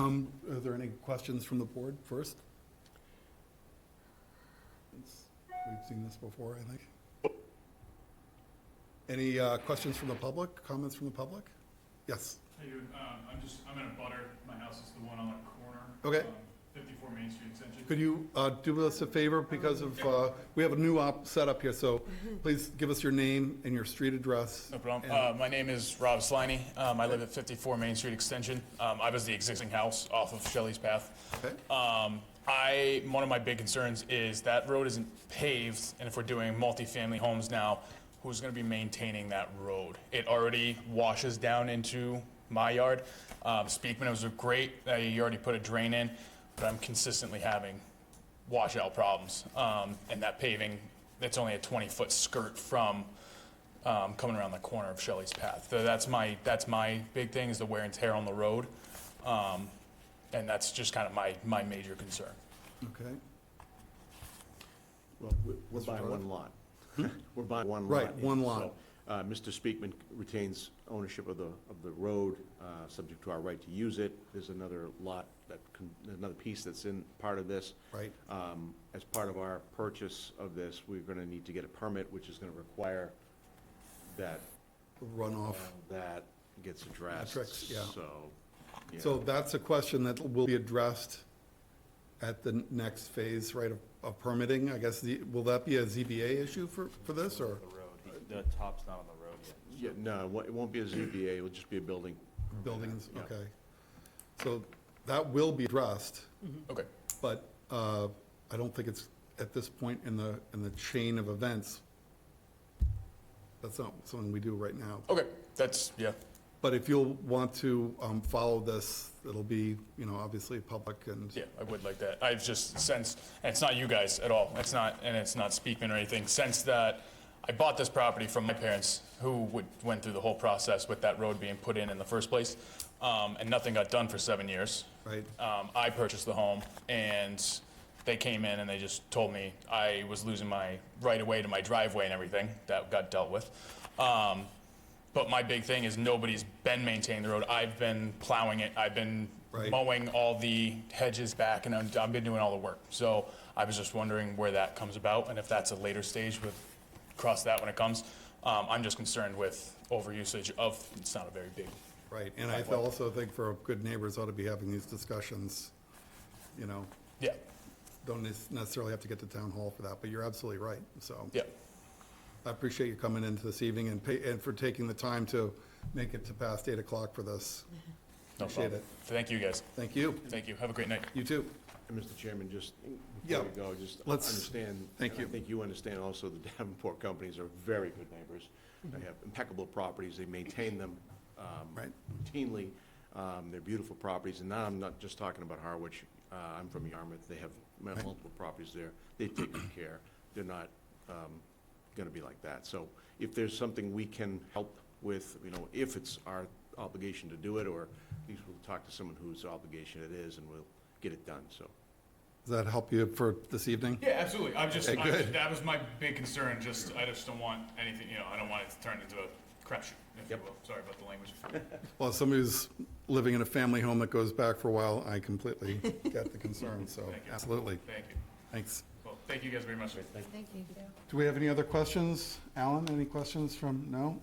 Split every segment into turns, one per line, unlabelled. Um, are there any questions from the board first? It's- We've seen this before, I think. Any, uh, questions from the public, comments from the public? Yes,
Hey, dude, um, I'm just, I'm in a butter, my house is the one on the corner.
Okay.
um, Fifty-four Main Street Extension.
could you, uh, do us a favor because of, uh, we have a new op, setup here, so please give us your name and your street address.
No problem.
And-
Uh, my name is Rob Sliney. Um, I live at fifty-four Main Street Extension. Um, I was the existing house off of Shelley's Path.
Okay,
Um, I, one of my big concerns is that road isn't paved, and if we're doing multifamily homes now, who's gonna be maintaining that road? It already washes down into my yard. Um, Speakman was great, uh, you already put a drain in, but I'm consistently having washout problems. Um, and that paving, that's only a twenty-foot skirt from, um, coming around the corner of Shelley's Path. So that's my, that's my big thing, is the wear and tear on the road. Um, and that's just kind of my, my major concern.
okay,
Well, we- we're
Mr.
buying
Jordan?
one lot. Hmm? We're buying one lot.
Right, one
yeah,
lot.
so, uh, Mr. Speakman retains ownership of the, of the road, uh, subject to our right to use it. There's another lot that, con- another piece that's in part of this.
right,
Um, As part of our purchase of this, we're going to need to get a permit, which is going to require that, uh,
runoff.
that gets addressed.
Metrics, yeah.
So, yeah.
So that's a question that will be addressed at the next phase, right, of- of permitting, I guess, the, will that be a ZBA issue for, for this, or?
The road, He- the top's not on the road yet.
Yeah, no, it won't- it won't be a ZBA, it'll just be a building.
Buildings,
Yeah.
okay. So that will be addressed,
Mm-hmm.
Okay.
but uh, I don't think it's at this point in the, in the chain of events. That's not something we do right now.
Okay. That's, yeah.
But if you'll want to um, follow this, it'll be, you know, obviously public and,
Yeah, I would like that. I've just sensed, and it's not you guys at all. It's not, and it's not Speakman or anything. Since that I bought this property from my parents, who would, went through the whole process with that road being put in in the first place, um, and nothing got done for seven years.
right?
Um, I purchased the home, and they came in and they just told me I was losing my right of way to my driveway and everything that got dealt with. Um, but my big thing is nobody's been maintaining the road. I've been plowing it. I've been
Right.
mowing all the hedges back, and I've, I've been doing all the work. So I was just wondering where that comes about, and if that's a later stage with cross that when it comes. Um, I'm just concerned with overusage of. It's not a very big.
Right, and I also think for good neighbors ought to be having these discussions, you know,
Yeah.
don't nec- necessarily have to get to town hall for that, but you're absolutely right, so.
Yeah.
I appreciate you coming into this evening and pay, and for taking the time to make it to past eight o'clock for this.
No
Appreciate
problem.
it.
Thank you guys.
Thank you,
Thank you. Have a great night.
you too.
And Mr. Chairman, just
Yeah,
before we go, just
let's-
understand.
thank
and
you.
I think you understand also the Davenport companies are very good neighbors. They have impeccable properties. They maintain them um,
Right.
routinely. Um, They're beautiful properties. And now I'm not just talking about Harwich. Uh, I'm from Yarmouth. They have multiple properties there. They take good care. They're not going to be like that. So if there's something we can help with, you know, if it's our obligation to do it, or at least we'll talk to someone whose obligation it is, and we'll get it done, so.
Does that help you for this evening?
Yeah, absolutely. I'm just,
Okay,
I'm just-
good.
that was my big concern, just, I just don't want anything, you know, I don't want it to turn into a crapshoot, if you
Yep.
will. Sorry about the language.
Well, as somebody who's living in a family home that goes back for a while, I completely get the concern, so,
Thank you.
absolutely,
Thank you.
thanks.
Well, thank you guys very much.
Thank you.
Do we have any other questions? Alan, any questions from, no?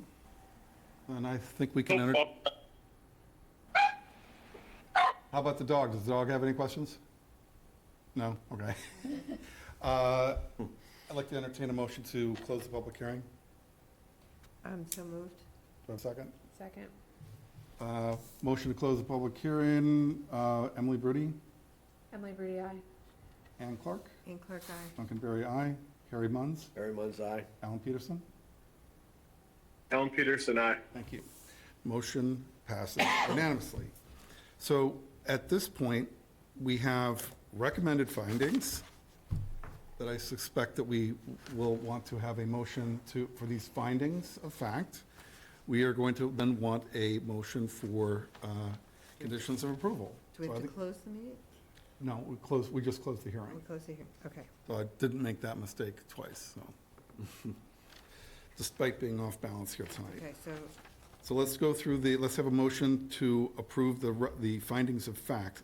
Then I think we can enter. How about the dog? Does the dog have any questions? No? Okay. Uh, I'd like to entertain a motion to close the public hearing.
I'm so moved.
Do I have a second?
Second?
Uh, Motion to close the public hearing, uh, Emily Brody,
Emily Brady, aye.
Ann Clark,
And Clark, aye.
Duncan Berry, aye, Harry Munns. Harry Munns, aye. Alan Peterson.
Alan Peterson, aye.
Thank you. Motion passes unanimously. So at this point, we have recommended findings that I suspect that we will want to have a motion to, for these findings of fact. We are going to then want a motion for uh, conditions of approval.
Do we
So I
have to
think-
close the meeting?
No, we closed, we just closed the
We
hearing.
close the hearing, okay.
So I didn't make that mistake twice, so. Despite being off balance here tonight.
Okay, so
So let's go through the, let's have a motion to approve the, re- the findings of fact